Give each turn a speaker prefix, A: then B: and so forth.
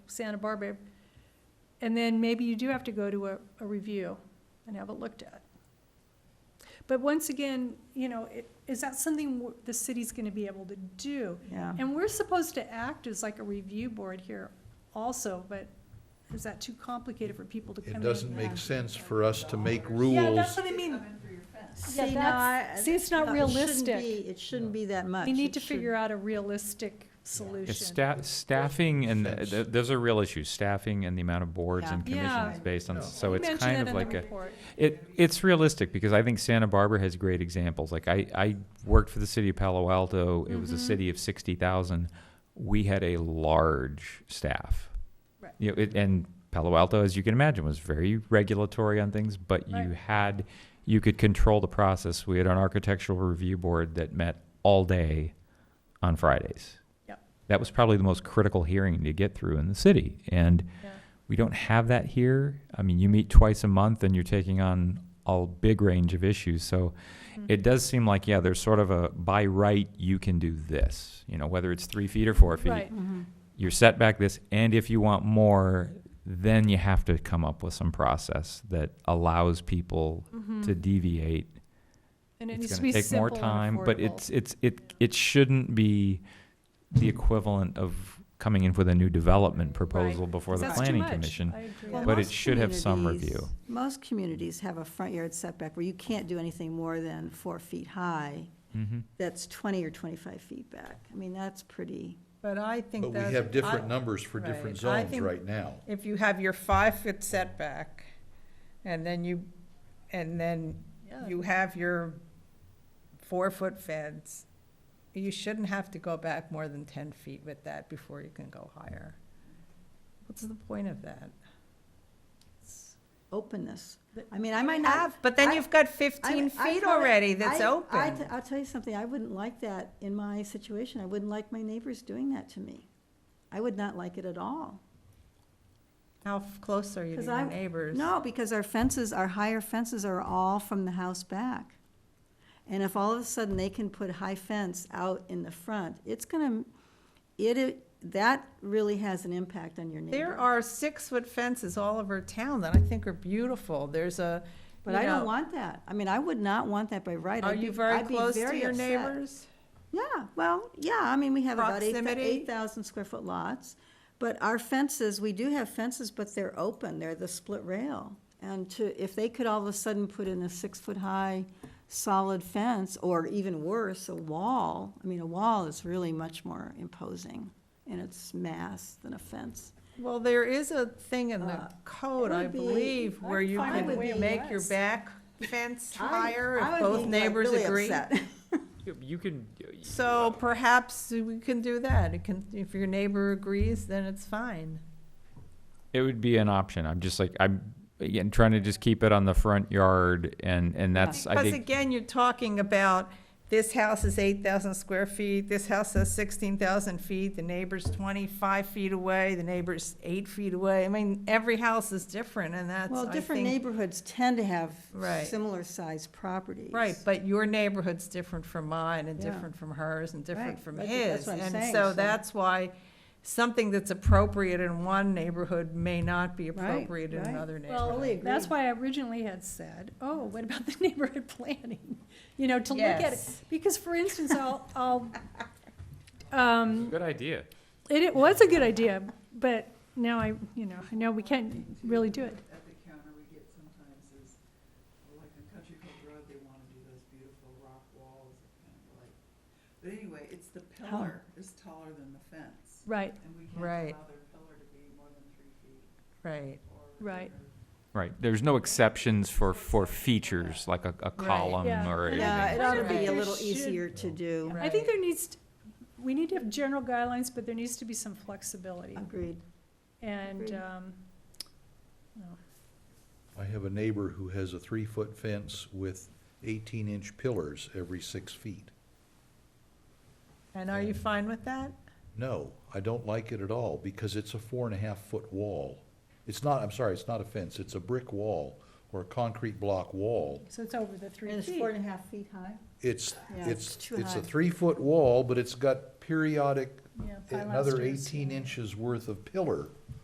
A: Santa Barbara. And then maybe you do have to go to a, a review and have it looked at. But once again, you know, it, is that something w- the city's gonna be able to do?
B: yeah.
A: And we're supposed to act as like a review board here also, but is that too complicated for people to come in?
C: It doesn't
B: Yeah.
C: make sense for us to make
A: Yeah,
C: rules.
A: that's what I mean.
B: See,
A: Yeah,
B: no,
A: that's-
B: I-
A: see, it's not
B: no, it shouldn't
A: realistic.
B: be- It shouldn't be that much.
A: We need
B: It
A: to
B: should-
A: figure out a realistic solution.
D: It's sta- staffing and, th- th- those are real issues, staffing and the amount of boards and
A: Yeah. Yeah.
D: commissions based on,
C: No.
D: so
A: We
D: it's
A: mentioned
D: kind
A: that
D: of
A: in the
D: like a,
A: report.
D: it, it's realistic, because I think Santa Barbara has great examples, like I, I worked for the city of Palo Alto, it was a
A: Mhm.
D: city of sixty thousand, we had a large staff.
A: Right.
D: You know, it, and Palo Alto, as you can imagine, was very regulatory on things, but you
A: Right.
D: had, you could control the process, we had an architectural review board that met all day on Fridays that was probably the most critical hearing to get through in the city. And
A: Yeah.
D: we don't have that here. I mean, you meet twice a month and you're taking on a big range of issues. So
A: Mm-hmm.
D: it does seem like, yeah, there's sort of a by right, you can do this, you know, whether it's three feet or four feet.
A: Right.
B: Mhm.
D: You're set back this, and if you want more, then you have to come up with some process that allows people to deviate
A: Mm-hmm. And it needs
D: it's
A: to be
D: going to take more
A: simple and
D: time, but
A: affordable.
D: it's, it's, it, it shouldn't be the equivalent of coming in with a new development proposal before the
A: That's too
D: planning
A: much.
D: commission.
A: I agree.
B: Well,
D: But it
B: most
D: should have some
B: communities-
D: review.
B: Most communities have a front yard setback where you can't do anything more than four feet high.
D: Mhm.
B: That's twenty or twenty-five feet back. I mean, that's pretty,
E: But I think
C: But
E: that's.
C: we have different
E: I-
C: numbers for different
E: Right. I
C: zones
E: think-
C: right now.
E: If you have your five-foot setback, and then you, and then
B: Oh.
E: you have your four-foot fence, you shouldn't have to go back more than ten feet with that before you can go higher. What's the point of that?
B: openness.
E: But-
B: I mean, I might not.
E: Have, but then
B: I-
E: you've got
B: I-
E: fifteen
B: I
E: feet
B: probably-
E: already that's
B: I- I
E: open.
B: t- I'll tell you something, I wouldn't like that in my situation. I wouldn't like my neighbors doing that to me. I would not like it at all.
E: How f- close are you to
B: 'Cause
E: your
B: I'm-
E: neighbors?
B: No, because our fences, our higher fences are all from the house back. And if all of a sudden they can put high fence out in the front, it's gonna, it- it, that really has an impact on your neighbor.
E: There are six-foot fences all over town that I think are beautiful. There's a,
B: But
E: you
B: I don't
E: know,
B: want that. I mean, I would not want that by right.
E: Are
B: I'd be-
E: you very
B: I'd be
E: close to
B: very
E: your
B: upset.
E: neighbors?
B: Yeah, well, yeah, I mean, we have about eight
E: Proximity?
B: thousand square foot lots. But our fences, we do have fences, but they're open, they're the split rail. And to, if they could all of a sudden put in a six-foot-high solid fence, or even worse, a wall, I mean, a wall is really much more imposing in its mass than a fence.
E: Well, there is a thing in the
B: Uh,
E: code,
B: it
E: I
B: would be-
E: believe, where you
B: I would be
E: can make your
B: less.
E: back fence
B: I-
E: higher
B: I
E: if
B: would
E: both
B: be, like,
E: neighbors
B: really
E: agree.
B: upset.
D: You can. uh,
E: So perhaps we can do that. It can, if your neighbor agrees, then it's fine.
D: It would be an option. I'm just like, I'm, again, trying to just keep it on the front yard and, and that's, I
E: Because
D: think,
E: again, you're talking about, this house is eight thousand square feet, this house has sixteen thousand feet, the neighbor's twenty-five feet away, the neighbor's eight feet away. I mean, every house is different and that's,
B: Well,
E: I
B: different
E: think-
B: neighborhoods tend to have
E: Right.
B: similar-sized properties.
E: Right, but your neighborhood's different from mine and
B: Yeah.
E: different from hers and different
B: Right,
E: from
B: that's- that's
E: his.
B: what I'm
E: And
B: saying,
E: so
B: so-
E: that's why something that's appropriate in one neighborhood may not be
B: Right,
E: appropriate in
B: right.
A: Well,
E: another neighborhood.
B: Totally
A: that's
B: agree.
A: why I originally had said, oh, what about the neighborhood planning? You know, to look at it,
E: Yes.
A: because for instance, I'll, I'll, um,
D: good idea.
A: It, it was a good idea, but now I, you know, I know we can't really do it.
F: At the counter we get sometimes is, well, like on Country Club Road, they wanna do those beautiful rock walls, that kind of like, but anyway, it's the pillar is taller than the fence.
A: Right,
F: And we
E: Right.
F: can't allow their pillar to be more than three feet
E: Right,
F: or.
A: Right.
F: or-
D: Right, there's no exceptions for, for features, like a, a column
A: yeah.
D: or anything.
B: Yeah, it ought to
E: Right.
B: be a
A: There
B: little
A: should-
B: easier to do.
A: I think
E: Right.
A: there needs, t- we need to have general guidelines, but there needs to be some flexibility,
B: Agreed.
A: and,
B: Agreed.
A: um, no.
C: I have a neighbor who has a three-foot fence with eighteen-inch pillars every six feet.
E: and are you fine with that?
C: No, I don't like it at all, because it's a four-and-a-half-foot wall. It's not, I'm sorry, it's not a fence, it's a brick wall or a concrete block wall.
A: so it's over the three
B: And it's
A: feet.
B: four and a half feet high?
C: It's,
B: Yeah, it's
C: it's,
B: too
C: it's a
B: high.
C: three-foot wall, but it's got periodic,
A: Yeah, pilasters.
C: another eighteen inches worth of pillar